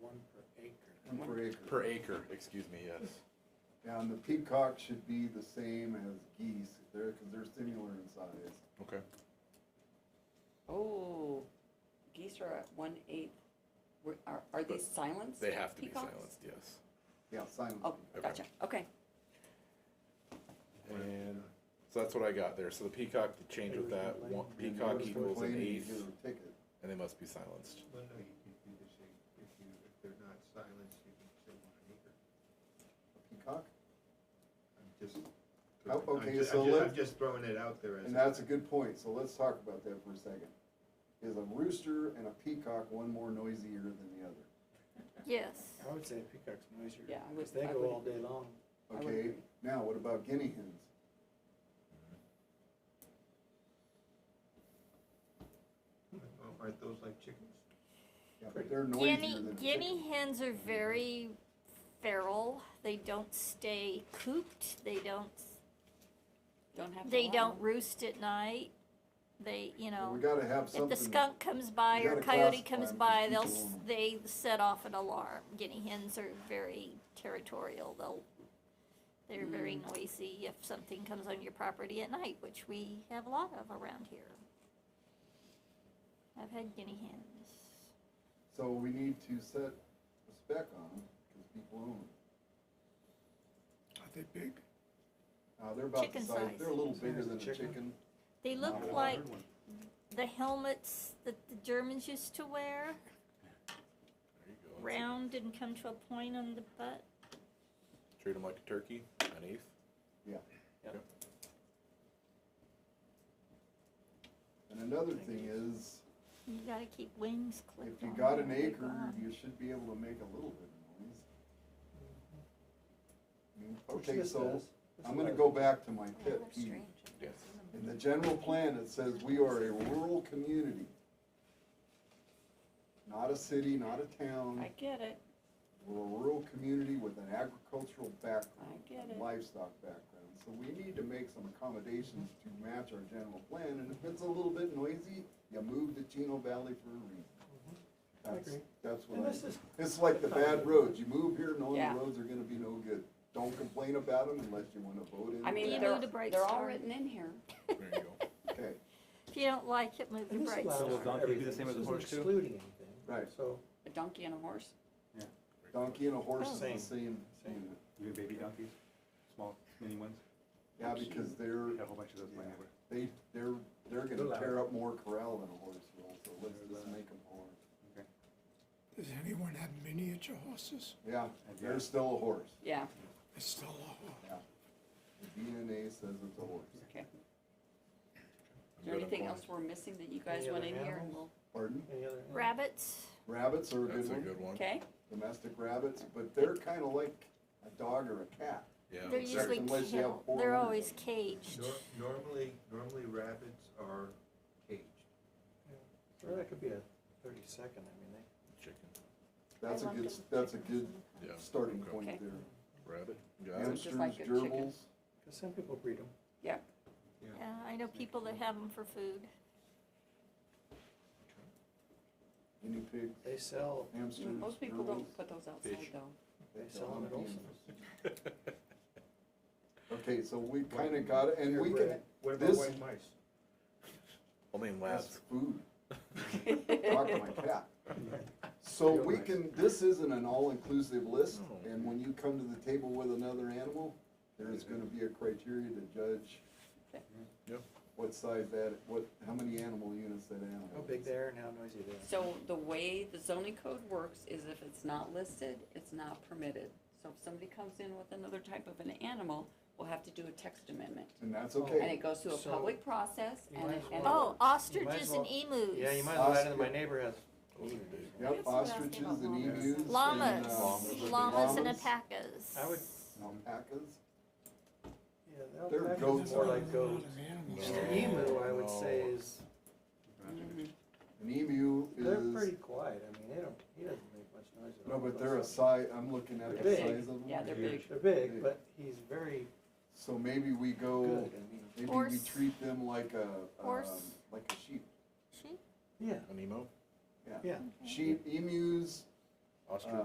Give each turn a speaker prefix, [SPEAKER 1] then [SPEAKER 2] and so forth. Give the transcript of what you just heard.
[SPEAKER 1] per acre.
[SPEAKER 2] Per acre, excuse me, yes.
[SPEAKER 1] And the peacock should be the same as geese, they're, cause they're similar in size.
[SPEAKER 2] Okay.
[SPEAKER 3] Oh, geese are at one eighth. Were- Are, are these silenced?
[SPEAKER 2] They have to be
[SPEAKER 3] peacocks?
[SPEAKER 2] silenced, yes.
[SPEAKER 1] Yeah, silent.
[SPEAKER 3] Oh,
[SPEAKER 2] Okay.
[SPEAKER 3] gotcha. Okay.
[SPEAKER 2] And, so that's what I got there. So the peacock, the change with that, one,
[SPEAKER 1] And
[SPEAKER 2] peacock
[SPEAKER 1] those
[SPEAKER 2] equals an
[SPEAKER 1] complaining, you
[SPEAKER 2] eighth,
[SPEAKER 1] Get a ticket.
[SPEAKER 2] and they must be silenced.
[SPEAKER 4] Well, no, you can do the same, if you, if they're not silenced, you can say one acre.
[SPEAKER 1] A Peacock?
[SPEAKER 4] I'm just.
[SPEAKER 1] Oh,
[SPEAKER 4] I'm
[SPEAKER 1] okay,
[SPEAKER 4] ju- I'm
[SPEAKER 1] so
[SPEAKER 4] ju-
[SPEAKER 1] let-
[SPEAKER 4] I'm just throwing it out there as.
[SPEAKER 1] And
[SPEAKER 4] a-
[SPEAKER 1] that's a good point, so let's talk about that for a second. Is a rooster and a peacock one more noisier than the other?
[SPEAKER 3] Yes.
[SPEAKER 5] I would say peacock's noisier.
[SPEAKER 3] Yeah, I would-
[SPEAKER 5] 'cause they
[SPEAKER 3] I
[SPEAKER 5] go
[SPEAKER 3] would
[SPEAKER 5] all day long.
[SPEAKER 3] I would
[SPEAKER 1] Okay,
[SPEAKER 3] agree.
[SPEAKER 1] now what about guinea hens?
[SPEAKER 4] Oh, Aren't those like chickens?
[SPEAKER 1] Yeah, but they're noisier
[SPEAKER 6] Guinea,
[SPEAKER 1] than a
[SPEAKER 6] guinea
[SPEAKER 1] chicken.
[SPEAKER 6] hens are very feral. They don't stay cooped. They don't.
[SPEAKER 3] Don't have. to
[SPEAKER 6] They
[SPEAKER 3] allow
[SPEAKER 6] don't
[SPEAKER 3] them.
[SPEAKER 6] roost at night. They, you
[SPEAKER 1] Well, We
[SPEAKER 6] know,
[SPEAKER 1] gotta have
[SPEAKER 6] if
[SPEAKER 1] something.
[SPEAKER 6] the skunk comes by
[SPEAKER 1] you
[SPEAKER 6] or
[SPEAKER 1] gotta
[SPEAKER 6] coyote
[SPEAKER 1] classify
[SPEAKER 6] comes
[SPEAKER 1] 'em 'cause
[SPEAKER 6] by, they'll
[SPEAKER 1] people
[SPEAKER 6] s-
[SPEAKER 1] wanna-
[SPEAKER 6] they set off an alarm. Guinea hens are very territorial. They'll. They're very
[SPEAKER 1] Hmm.
[SPEAKER 6] noisy if something comes on your property at night, which we have a lot of around here. I've had guinea hens.
[SPEAKER 1] So we need to set a spec on them, cause people own them.
[SPEAKER 2] Are they big?
[SPEAKER 1] Uh, they're about the
[SPEAKER 6] Chicken
[SPEAKER 1] size,
[SPEAKER 6] size.
[SPEAKER 1] they're a little
[SPEAKER 5] Size
[SPEAKER 1] bigger
[SPEAKER 5] of
[SPEAKER 1] than a
[SPEAKER 5] chicken.
[SPEAKER 1] chicken.
[SPEAKER 6] They
[SPEAKER 1] Not
[SPEAKER 6] look
[SPEAKER 1] a
[SPEAKER 6] like
[SPEAKER 5] Hard one.
[SPEAKER 6] the helmets that the Germans used to wear,
[SPEAKER 2] There you go.
[SPEAKER 6] round and come to a point on the butt.
[SPEAKER 2] Treat them like a turkey, an eighth.
[SPEAKER 1] And another thing is,
[SPEAKER 6] You gotta keep wings clipped.
[SPEAKER 1] if you
[SPEAKER 6] on
[SPEAKER 1] got
[SPEAKER 6] them
[SPEAKER 1] an
[SPEAKER 6] when they
[SPEAKER 1] acre,
[SPEAKER 6] go on.
[SPEAKER 1] you should be able to make a little bit of noise. I mean,
[SPEAKER 5] Which
[SPEAKER 1] Okay,
[SPEAKER 5] this
[SPEAKER 1] so
[SPEAKER 5] does. This
[SPEAKER 1] I'm
[SPEAKER 5] is
[SPEAKER 1] gonna
[SPEAKER 5] ours.
[SPEAKER 1] go back to my
[SPEAKER 3] Yeah,
[SPEAKER 1] pet
[SPEAKER 3] they're
[SPEAKER 1] peeve.
[SPEAKER 3] strange.
[SPEAKER 2] Yes.
[SPEAKER 1] In the general plan, it says we are a rural community. Not a city, not a town,
[SPEAKER 3] I get it.
[SPEAKER 1] we're a rural community with an agricultural background.
[SPEAKER 3] I get
[SPEAKER 1] and
[SPEAKER 3] it.
[SPEAKER 1] Livestock background, so we need to make some accommodations to match our general plan, and if it's a little bit noisy, you move to Chino Valley for a reason.
[SPEAKER 5] Mm-hmm.
[SPEAKER 1] That's,
[SPEAKER 5] agree.
[SPEAKER 1] that's what
[SPEAKER 5] And
[SPEAKER 1] I,
[SPEAKER 5] this is-
[SPEAKER 1] it's like the bad roads, you move here knowing
[SPEAKER 3] Yeah.
[SPEAKER 1] the roads are gonna be no good. Don't complain about them unless you wanna vote in.
[SPEAKER 3] I
[SPEAKER 6] You
[SPEAKER 3] mean,
[SPEAKER 6] know
[SPEAKER 3] they're,
[SPEAKER 6] the bright
[SPEAKER 3] they're all
[SPEAKER 6] star.
[SPEAKER 3] written in here.
[SPEAKER 2] There you go.
[SPEAKER 1] Okay,
[SPEAKER 6] If you don't like it, move to
[SPEAKER 5] And this
[SPEAKER 6] Bright
[SPEAKER 5] allows
[SPEAKER 6] Star.
[SPEAKER 7] Well, donkey do the
[SPEAKER 5] everything.
[SPEAKER 7] same as
[SPEAKER 5] This
[SPEAKER 7] a
[SPEAKER 5] isn't
[SPEAKER 7] horse, too?
[SPEAKER 5] Excluding anything.
[SPEAKER 1] Right.
[SPEAKER 5] So,
[SPEAKER 3] A donkey and a horse.
[SPEAKER 1] donkey and a horse is the
[SPEAKER 5] Same.
[SPEAKER 1] same
[SPEAKER 5] Oh. Same.
[SPEAKER 1] unit.
[SPEAKER 7] New baby donkeys, small, mini ones,
[SPEAKER 1] Yeah, because they're,
[SPEAKER 7] we have a whole bunch of those laying over.
[SPEAKER 1] they, they're, they're
[SPEAKER 5] They're
[SPEAKER 1] gonna
[SPEAKER 5] loud.
[SPEAKER 1] tear up more corral than a horse will, so let's
[SPEAKER 7] They're
[SPEAKER 1] just
[SPEAKER 7] loud.
[SPEAKER 1] make them horse.
[SPEAKER 8] Does anyone have miniature horses?
[SPEAKER 1] Yeah, they're still a horse.
[SPEAKER 3] Yeah.
[SPEAKER 8] It's still a horse.
[SPEAKER 1] The DNA says it's a horse.
[SPEAKER 3] Okay.
[SPEAKER 2] I'm
[SPEAKER 3] Is there
[SPEAKER 2] good on
[SPEAKER 3] anything
[SPEAKER 2] corn.
[SPEAKER 3] else we're missing that you guys
[SPEAKER 5] Any
[SPEAKER 3] want in
[SPEAKER 5] other
[SPEAKER 3] here? And we'll,
[SPEAKER 5] animals?
[SPEAKER 1] Pardon?
[SPEAKER 5] any other?
[SPEAKER 6] Rabbits,
[SPEAKER 1] Rabbits are a
[SPEAKER 2] That's
[SPEAKER 1] good
[SPEAKER 2] a
[SPEAKER 1] one,
[SPEAKER 2] good one.
[SPEAKER 3] okay.
[SPEAKER 1] domestic rabbits, but they're kinda like a dog or a cat.
[SPEAKER 2] Yeah.
[SPEAKER 6] they're
[SPEAKER 1] Except
[SPEAKER 6] usually
[SPEAKER 1] unless you have
[SPEAKER 6] killed.
[SPEAKER 1] four
[SPEAKER 6] They're
[SPEAKER 1] hundred
[SPEAKER 6] always
[SPEAKER 1] of them.
[SPEAKER 6] caged.
[SPEAKER 4] Nor- Normally, normally rabbits are caged.
[SPEAKER 5] Or that could be a thirty second, I mean, they,
[SPEAKER 2] Chicken,
[SPEAKER 1] That's a
[SPEAKER 6] I like
[SPEAKER 1] good,
[SPEAKER 6] them.
[SPEAKER 1] that's a good
[SPEAKER 2] yeah.
[SPEAKER 1] starting
[SPEAKER 2] Okay.
[SPEAKER 1] point
[SPEAKER 3] Okay.
[SPEAKER 1] there.
[SPEAKER 2] Rabbit, got it.
[SPEAKER 3] Sounds
[SPEAKER 1] Hamsters,
[SPEAKER 3] just like a chicken.
[SPEAKER 1] gerbils,
[SPEAKER 5] cause some people breed them.
[SPEAKER 6] Yeah, I know people that have them for food.
[SPEAKER 1] guinea pigs,
[SPEAKER 5] They sell,
[SPEAKER 1] hamsters,
[SPEAKER 3] Mm, Most people
[SPEAKER 1] gerbils.
[SPEAKER 3] don't put those outside
[SPEAKER 2] Fish.
[SPEAKER 3] though.
[SPEAKER 5] they
[SPEAKER 1] That's
[SPEAKER 5] sell
[SPEAKER 1] all
[SPEAKER 5] them at
[SPEAKER 1] I'm
[SPEAKER 5] Olson's.
[SPEAKER 1] eating. Okay, so we kinda got, it, and
[SPEAKER 4] They're
[SPEAKER 1] we can,
[SPEAKER 4] bred. What about
[SPEAKER 1] this-
[SPEAKER 4] white mice?
[SPEAKER 2] Only in
[SPEAKER 1] that's
[SPEAKER 2] labs.
[SPEAKER 1] food. Talk to my cat. So we can, this isn't an all-inclusive list,
[SPEAKER 2] No.
[SPEAKER 1] and when you come to the table with another animal, there is gonna be a criteria to judge
[SPEAKER 3] Okay.
[SPEAKER 2] Yep.
[SPEAKER 1] what size that, what, how many animal units that animal.
[SPEAKER 5] How
[SPEAKER 1] is.
[SPEAKER 5] big they are and how noisy they are.
[SPEAKER 3] So the way the zoning code works is if it's not listed, it's not permitted. So if somebody comes in with another type of an animal, we'll have to do a text amendment.
[SPEAKER 1] And that's
[SPEAKER 3] And
[SPEAKER 1] okay.
[SPEAKER 3] it goes through a
[SPEAKER 5] So-
[SPEAKER 3] public process
[SPEAKER 5] You
[SPEAKER 3] and,
[SPEAKER 5] might
[SPEAKER 3] it-
[SPEAKER 5] as
[SPEAKER 3] and.
[SPEAKER 5] well-
[SPEAKER 6] Oh, ostriches
[SPEAKER 5] well-
[SPEAKER 6] and emus.
[SPEAKER 5] Yeah, you might as well add in that my neighbor has.
[SPEAKER 2] Those are big.
[SPEAKER 6] I
[SPEAKER 1] Yep,
[SPEAKER 6] guess what else came
[SPEAKER 1] ostriches
[SPEAKER 6] up
[SPEAKER 1] and
[SPEAKER 3] on this?
[SPEAKER 1] emus. and, uh,
[SPEAKER 6] Llamas,
[SPEAKER 2] Llamas.
[SPEAKER 6] llamas and
[SPEAKER 1] llamas,
[SPEAKER 6] alpacas.
[SPEAKER 5] I would-
[SPEAKER 1] Alpacas,
[SPEAKER 5] Yeah, they'll
[SPEAKER 1] They're
[SPEAKER 5] pack it
[SPEAKER 1] goats.
[SPEAKER 5] More like
[SPEAKER 8] There's not a lot
[SPEAKER 5] goats.
[SPEAKER 8] of animals.
[SPEAKER 5] Just the emu, I would say,
[SPEAKER 2] No.
[SPEAKER 5] is,
[SPEAKER 4] Oh.
[SPEAKER 3] Mhm.
[SPEAKER 1] an emu
[SPEAKER 5] they're
[SPEAKER 1] is,
[SPEAKER 5] pretty quiet, I mean, they don't, he doesn't make much noise at
[SPEAKER 1] no,
[SPEAKER 5] all.
[SPEAKER 1] but they're a size, I'm looking at the
[SPEAKER 5] They're
[SPEAKER 1] size
[SPEAKER 5] big.
[SPEAKER 1] of them.
[SPEAKER 3] Yeah, they're big.
[SPEAKER 5] They're big, but he's very
[SPEAKER 1] So maybe we go.
[SPEAKER 5] good, I mean,
[SPEAKER 1] Maybe we
[SPEAKER 6] Horse.
[SPEAKER 1] treat them like a, um,
[SPEAKER 6] Horse.
[SPEAKER 1] like a sheep.
[SPEAKER 6] Sheep?
[SPEAKER 5] yeah,
[SPEAKER 2] An emo,
[SPEAKER 5] yeah.
[SPEAKER 1] Sheep, emus,
[SPEAKER 2] ostrich.
[SPEAKER 1] Uh,